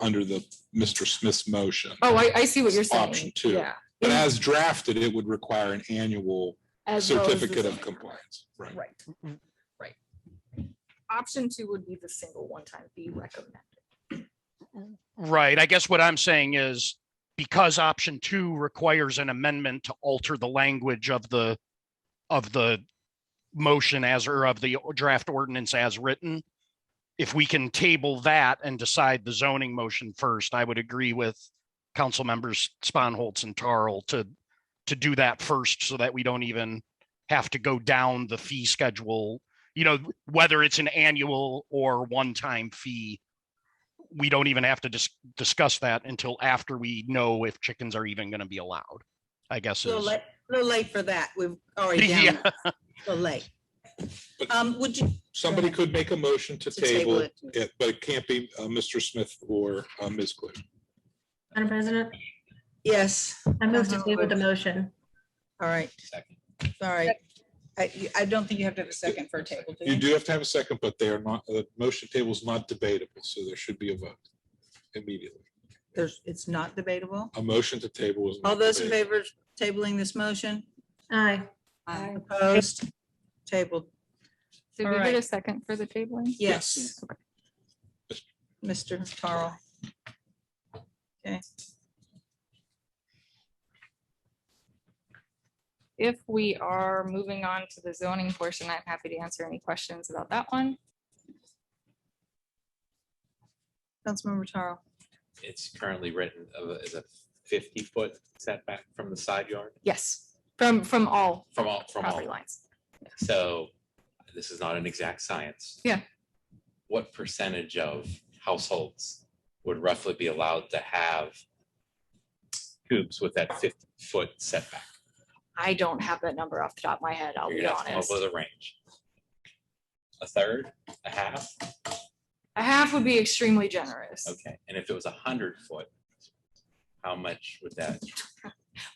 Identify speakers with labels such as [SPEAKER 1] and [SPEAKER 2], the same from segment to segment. [SPEAKER 1] under the Mr. Smith's motion.
[SPEAKER 2] Oh, I, I see what you're saying.
[SPEAKER 1] Option two.
[SPEAKER 2] Yeah.
[SPEAKER 1] But as drafted, it would require an annual
[SPEAKER 2] As well as the
[SPEAKER 1] certificate of
[SPEAKER 2] single.
[SPEAKER 1] compliance. Right.
[SPEAKER 2] Right, right. Option two would be the single one-time fee recommended.
[SPEAKER 3] Right. I guess what I'm saying is because option two requires an amendment to alter the language of the, of the motion as, or of the draft ordinance as written. If we can table that and decide the zoning motion first, I would agree with council members Sponholz and Tarl to, to do that first so that we don't even have to go down the fee schedule. You know, whether it's an annual or one-time fee we don't even have to dis- discuss that until after we know if chickens are even gonna be allowed, I guess
[SPEAKER 4] Little
[SPEAKER 3] is.
[SPEAKER 4] late, little late for that. We've already down.
[SPEAKER 3] Yeah.
[SPEAKER 4] A little late.
[SPEAKER 1] But-
[SPEAKER 4] Um, would you?
[SPEAKER 1] Somebody could make a motion to
[SPEAKER 4] to table
[SPEAKER 1] table
[SPEAKER 4] it?
[SPEAKER 1] it, but it can't be uh, Mr. Smith or uh, Ms. Clue.
[SPEAKER 5] Madam President,
[SPEAKER 4] Yes,
[SPEAKER 5] I move to table the motion.
[SPEAKER 4] all right. Sorry. I, I don't think you have to have a second for a table. do
[SPEAKER 1] You do have to have a second, but they are not, the motion table is not debatable, so there should be a vote immediately.
[SPEAKER 4] There's, it's not debatable.
[SPEAKER 1] A motion to table is. not
[SPEAKER 4] All those in
[SPEAKER 1] debatable.
[SPEAKER 4] favor of tabling this motion?
[SPEAKER 5] Aye. Aye.
[SPEAKER 4] Opposed? Tabled.
[SPEAKER 2] Did
[SPEAKER 4] All
[SPEAKER 2] we get a
[SPEAKER 4] right.
[SPEAKER 2] second for the tabling?
[SPEAKER 4] Yes, Mr. Tarl. Okay,
[SPEAKER 2] If we are moving on to the zoning portion, I'm happy to answer any questions about that one.
[SPEAKER 4] Councilmember Tarl.
[SPEAKER 6] it's currently written of a- as a fifty foot setback from the side yard,
[SPEAKER 2] Yes, from, from all
[SPEAKER 6] from all, from
[SPEAKER 2] property
[SPEAKER 6] all.
[SPEAKER 2] lines.
[SPEAKER 6] So this is not an exact science.
[SPEAKER 2] Yeah.
[SPEAKER 6] What percentage of households would roughly be allowed to have coops with that fifty foot setback?
[SPEAKER 2] I don't have that number off the top of my head, I'll
[SPEAKER 6] You're
[SPEAKER 2] be
[SPEAKER 6] gonna have to come up
[SPEAKER 2] honest.
[SPEAKER 6] with a range. A third, a half,
[SPEAKER 2] A half would be extremely generous.
[SPEAKER 6] okay, and if it was a hundred foot, how much would that,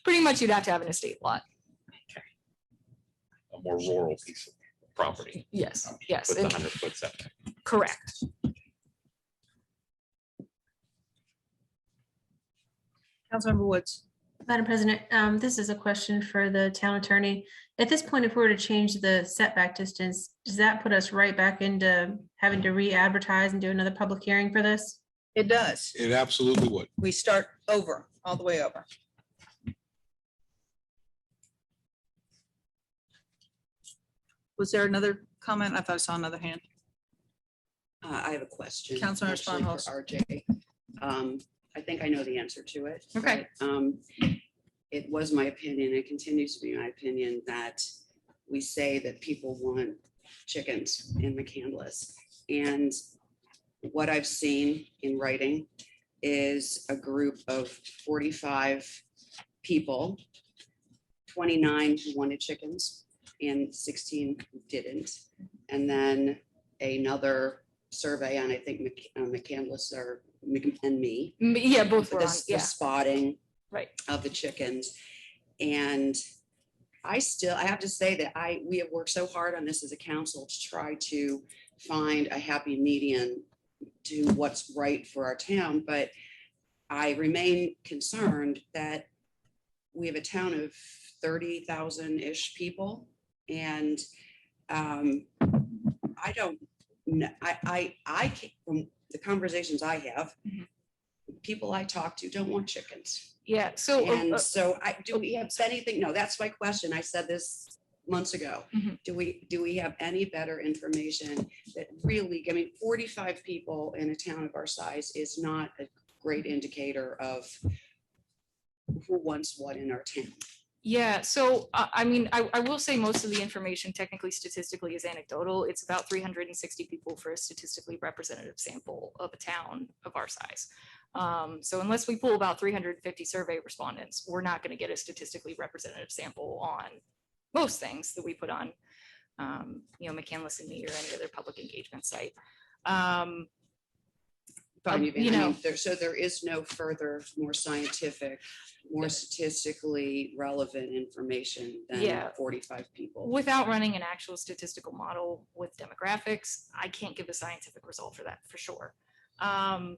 [SPEAKER 2] Pretty much you'd have to have an estate lot.
[SPEAKER 6] a more rural piece of property?
[SPEAKER 2] Yes, yes,
[SPEAKER 6] With the
[SPEAKER 2] and-
[SPEAKER 6] hundred foot setback?
[SPEAKER 2] correct.
[SPEAKER 4] Councilmember Woods.
[SPEAKER 5] Madam President, um, this is a question for the town attorney. At this point, if we were to change the setback distance, does that put us right back into having to re-advertise and do another public hearing for this?
[SPEAKER 4] It does.
[SPEAKER 1] It absolutely would.
[SPEAKER 4] We start over, all the way over. Was there another comment? I thought I saw another hand.
[SPEAKER 7] Uh, I have a question.
[SPEAKER 4] Councilmember
[SPEAKER 7] actually, for RJ. Um, I think I know the answer to it.
[SPEAKER 2] Okay.
[SPEAKER 7] but, Um, it was my opinion, it continues to be my opinion, that we say that people want chickens in McCandless. And what I've seen in writing is a group of forty-five people, twenty-nine who wanted chickens and sixteen who didn't. And then another survey on, I think, Mc- uh, McCandless or, Mc- and me.
[SPEAKER 2] M- Yeah, both were on,
[SPEAKER 7] the- The
[SPEAKER 2] yeah,
[SPEAKER 7] spotting
[SPEAKER 2] right.
[SPEAKER 7] of the chickens. And I still, I have to say that I, we have worked so hard on this as a council to try to find a happy median to what's right for our town, but I remain concerned that we have a town of thirty thousand-ish people. And um, I don't, kn- I, I, I, ca- from the conversations I have,
[SPEAKER 2] Mhm.
[SPEAKER 7] people I talk to don't want chickens.
[SPEAKER 2] Yeah, so. uh, uh,
[SPEAKER 7] And so I, do we have anything? No, that's my question. I said this months ago.
[SPEAKER 2] Mhm.
[SPEAKER 7] Do we, do we have any better information that really, I mean, forty-five people in a town of our size is not a great indicator of who wants what in our town.
[SPEAKER 2] Yeah, so I, I mean, I, I will say most of the information technically statistically is anecdotal. It's about three hundred and sixty people for a statistically representative sample of a town of our size. Um, so unless we pull about three hundred and fifty survey respondents, we're not gonna get a statistically representative sample on most things that we put on, um, you know, McCandless and me or any other public engagement site. Um,
[SPEAKER 7] But I
[SPEAKER 2] Um,
[SPEAKER 7] mean,
[SPEAKER 2] you
[SPEAKER 7] I mean,
[SPEAKER 2] know-
[SPEAKER 7] there- So there is no further, more scientific, more statistically relevant information than
[SPEAKER 2] Yeah.
[SPEAKER 7] forty-five people.
[SPEAKER 2] without running an actual statistical model with demographics, I can't give a scientific result for that for sure. Um,